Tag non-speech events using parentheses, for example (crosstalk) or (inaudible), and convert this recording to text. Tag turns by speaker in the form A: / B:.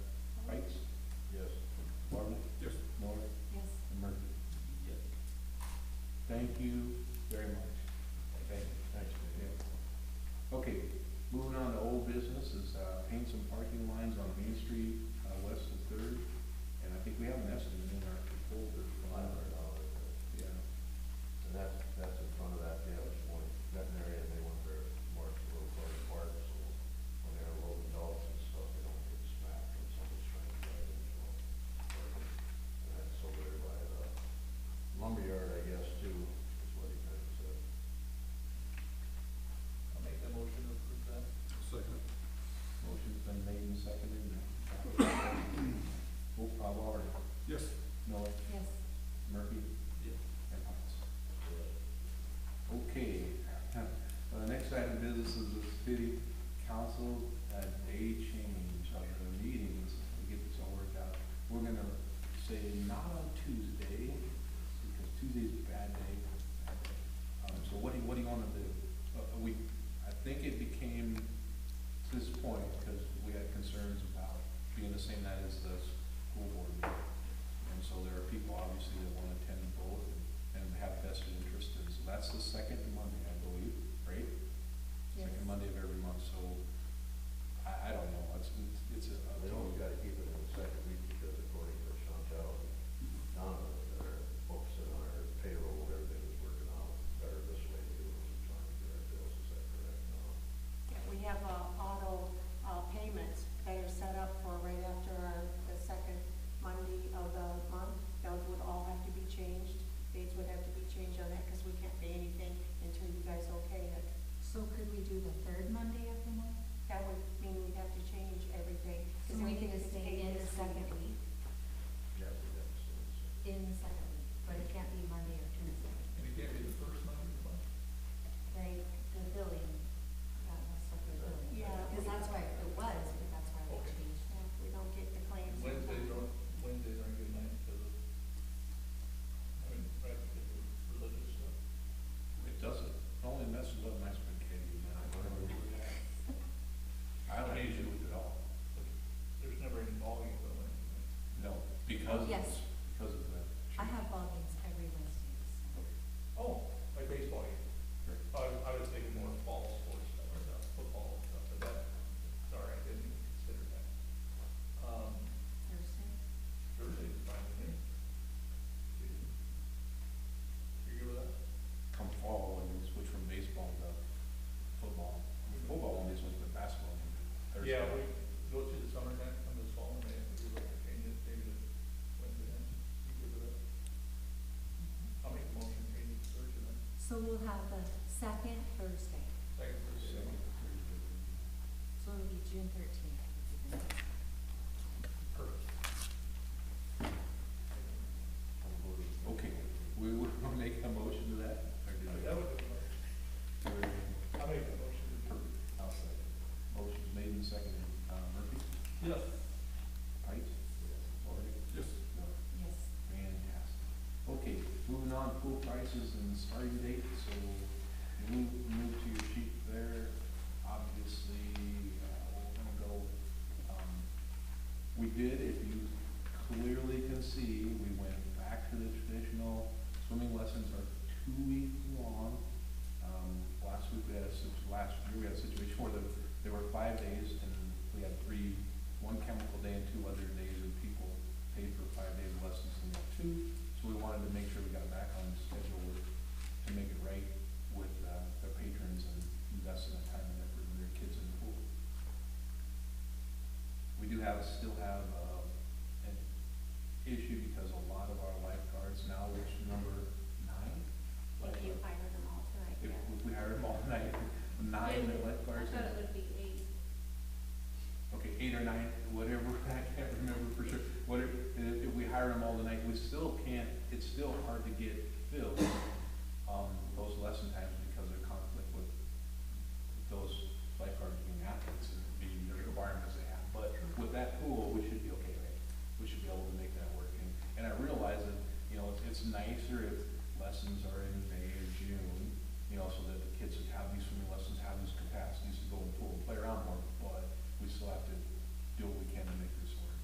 A: uh,
B: uh, uh, uh, Um, Uh, same night as the school board meeting. And so there are people obviously that wanna attend both and- and have vested interest in, so that's the second Monday, I believe, right?
C: Yes.
B: Second Monday of every month, so I, I don't know, it's, it's, it's a.
A: We only gotta keep it in the second week because according to Chantel, Donna, they're focusing on our payroll, everything is working out better this way than it was trying to get our bills, is that correct? No?
C: Yeah, We have, uh, auto, uh, payments that are set up for right after our, the second Monday of the month. Those would all have to be changed, dates would have to be changed on that, cause we can't pay anything until you guys okay it.
D: So could we do the third Monday of the month?
C: That would mean we'd have to change everything. 'cause
D: So we
C: everything
D: could
C: is
D: just
C: paid
D: stay in the
C: this
D: second
C: week.
D: week,
A: Yeah, we got the same, so.
D: in the second week, but it can't be Monday or Tuesday.
E: And it can't be the first Monday of the month?
D: Like the billing, that was for the billing.
C: Yeah.
D: Because that's why it was, but that's why we
E: Okay.
D: changed.
C: Yeah, we don't get the claims.
E: Wednesdays aren't, Wednesdays aren't good nights because of, I mean, right, because of religious stuff.
B: It doesn't, it only messes up my spaghetti, man, I don't know what that. I don't need to do it at all,
E: There's never any volume on Wednesday nights.
B: no, because of
D: Yes.
B: this, because of that.
D: I have ball games every Wednesday, so.
E: Oh, like baseball game.
B: Sure.
E: I, was- I was thinking more fall sports stuff, or stuff, football and stuff, but that, sorry, I didn't even consider that. Um,
C: Thursday.
E: Thursday's fine with me. You good with that?
B: come fall, and switch from baseball to football. I mean, Football only switched to basketball. Thursday.
E: Yeah, we go through the summertime, come this fall, and maybe we look to change it, maybe to Wednesday night. You good with that? I'll make a motion, change it to Thursday night.
D: So we'll have the second Thursday,
E: Second Thursday.
B: Second, Thursday.
D: so it'll be June thirteenth.
E: Perfect.
B: Okay, we (laughs) will make a motion to that, or do
E: That
B: we?
E: would be, I'll make a motion to approve.
B: I'll second. Motion's made and seconded, uh, Murphy,
E: Yes.
B: Pike, Flaherty?
E: Yes.
B: No.
D: Yes.
B: Fantastic. Okay, moving on, pool prices and starting date, so move, move to your sheet there. Obviously, uh, we're gonna go, um, we did, if you clearly can see, we went back to the traditional, swimming lessons are two weeks long. Um, last week we had a, sit- last year we had a situation where there, there were five days and we had three, one chemical day and two other days and people paid for five days of lessons and not two. So we wanted to make sure we got back on schedule with, to make it right with, uh, the patrons and investing the time and effort in their kids in the pool. We do have, still have, uh, an issue because a lot of our lifeguards now, which number nine?
C: If you hired them all tonight,
B: If
C: yeah.
B: we hired them all night, nine lifeguards. and-
C: would be eight.
B: okay, eight or nine, whatever, (laughs) I can't remember for sure, whatever, if, if we hire them all tonight, we still can't, it's still hard to get filled, um, those lesson times because of conflict with those lifeguards being athletes and being the requirements they have, but with that pool, we should be okay, right? We should be able to make that work, and, and I realize that, you know, it's, it's nicer if lessons are in May or June, you know, so that the kids would have these swimming lessons, have these capacities to go and pool and play around more, but we still have to do what we can to make it